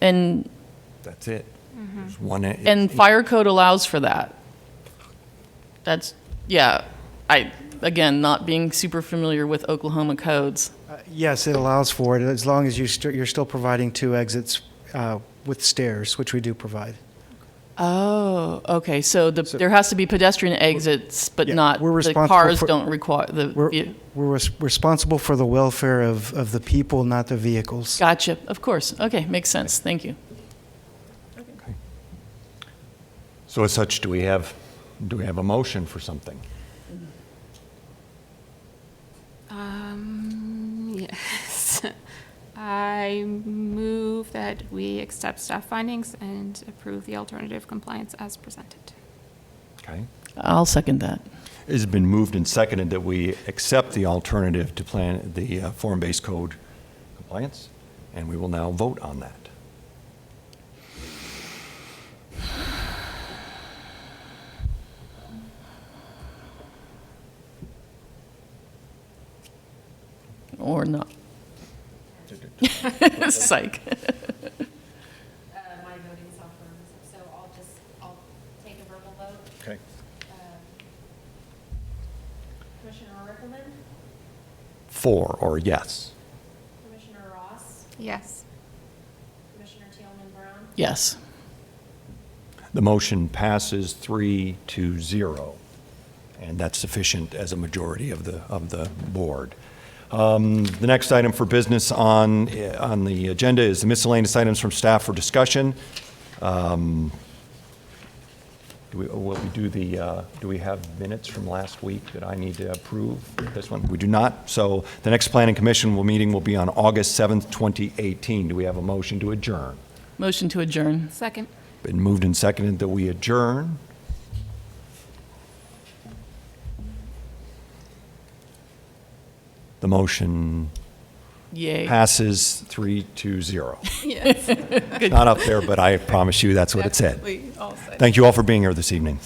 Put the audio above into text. and, That's it. There's one. e- and fire code allows for that. That's, yeah, I, again, not being super familiar with Oklahoma codes. Yes, it allows for it, as long as you st- you're still providing two exits uh, with stairs, which we do provide. Oh, okay, so the, there has to be pedestrian exits, but Yeah, not, we're the responsible cars for- don't require, the, We're, ve- we're res- responsible for the welfare of, of the people, not the vehicles. gotcha, of course, okay, makes sense, thank you. So as such, do we have, do we have a motion for something? Um, yes. I move that we accept staff findings and approve the alternative compliance as presented. Okay. I'll second that. It's been moved and seconded that we accept the alternative to plan, the uh, form-based code compliance, and we will now vote on that. Or not. Psych. uh, my voting software, so I'll just, I'll take a verbal vote. Okay. Um, Commissioner Rickman, For or yes? Commissioner Ross, Yes. Commissioner Tealman Brown, Yes. The motion passes three to zero, and that's sufficient as a majority of the, of the board. Um, The next item for business on, eh, on the agenda is the miscellaneous items from staff for discussion. Um, Do we, will we do the, uh, do we have minutes from last week that I need to approve this one? We do not, so the next planning commission will, meeting will be on August 7th, 2018. Do we have a motion to adjourn? Motion to adjourn. Second. Been moved and seconded that we adjourn. The motion Yay. passes three to zero. Yes. Not up there, but I promise you, that's what it said. all said. Thank you all for being here this evening.